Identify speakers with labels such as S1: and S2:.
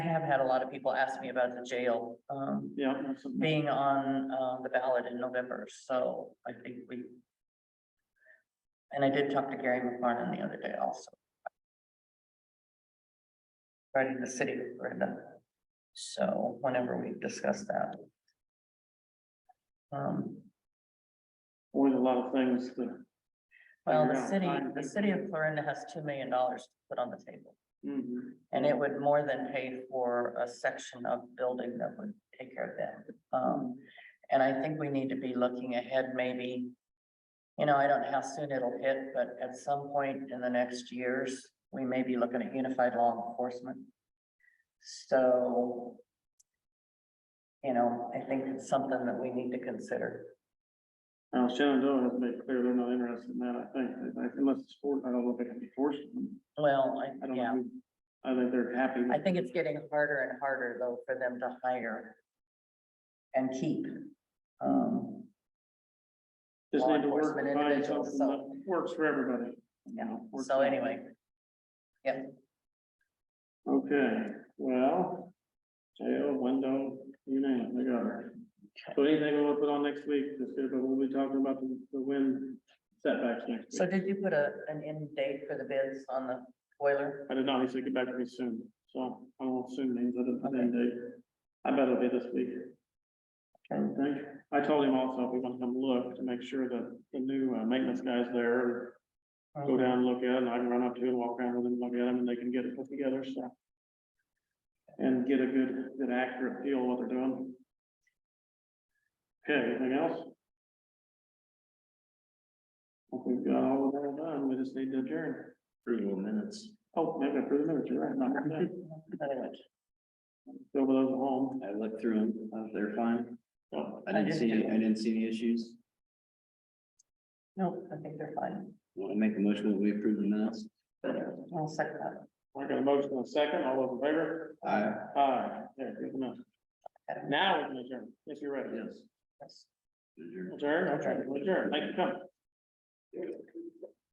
S1: I have had a lot of people ask me about the jail, um,
S2: Yeah. that's something.
S1: being on, uh, the ballot in November, so I think we. And I did talk to Gary McFarland the other day also. Running the city with Brenda, so whenever we discuss that. Um,
S2: Always a lot of things to,
S1: well, the
S2: Yeah,
S1: city,
S2: fine.
S1: the city of Florinda has two million dollars to put on the table.
S2: mhm.
S1: And it would more than pay for a section of building that would take care of that. Um, and I think we need to be looking ahead maybe. You know, I don't know how soon it'll hit, but at some point in the next years, we may be looking at unified law enforcement. So. You know, I think it's something that we need to consider.
S2: Now Shenandoah has made clear they're not interested in that, I think, I think unless it's for, I don't know if they can be forced.
S1: Well,
S2: I
S1: I,
S2: don't
S1: yeah,
S2: know. I think they're happy.
S1: I think it's getting harder and harder though for them to hire. And keep. Um,
S2: Just
S1: law
S2: need to work,
S1: enforcement
S2: find
S1: individuals,
S2: something that works for everybody.
S1: Yeah,
S2: Works
S1: so
S2: for-
S1: anyway. yeah,
S2: Okay, well, jail, window, you name it, they got it. So anything we'll put on next week, this year, but we'll be talking about the, the wind setbacks next
S1: So
S2: week.
S1: did you put a, an end date for the bids on the boiler?
S2: I did not, he said get back to me soon, so I don't know what soon means, I didn't, I didn't date. I bet it'll be this week. I would think, I told him also, if we want to come look to make sure that the new uh, maintenance guy's there, go down and look at it, and I can run up to it, walk around with him, look at him, and they can get it put together, so. And get a good, good accurate feel of what they're doing. Okay, anything else? I think We've got all of that done, we just need to adjourn. Approval minutes. Oh, maybe approve the minutes, you're right, not today.
S1: Anyway,
S2: Go with those at home.
S3: I looked through them, they're fine.
S2: Oh,
S3: I
S1: I
S3: didn't
S1: did
S3: see,
S1: too.
S3: I didn't see any issues.
S1: No, I think they're fine.
S3: Want to make a motion that we approve the minutes?
S1: I'll second that.
S2: um, I got a motion in a second, all those in favor?
S3: Aye.
S2: Aye, there, good enough. Now we can adjourn, if you're ready.
S3: Yes.
S1: Yes.
S2: Adjourn,
S3: Adjourn.
S2: okay, adjourn, thank you for coming.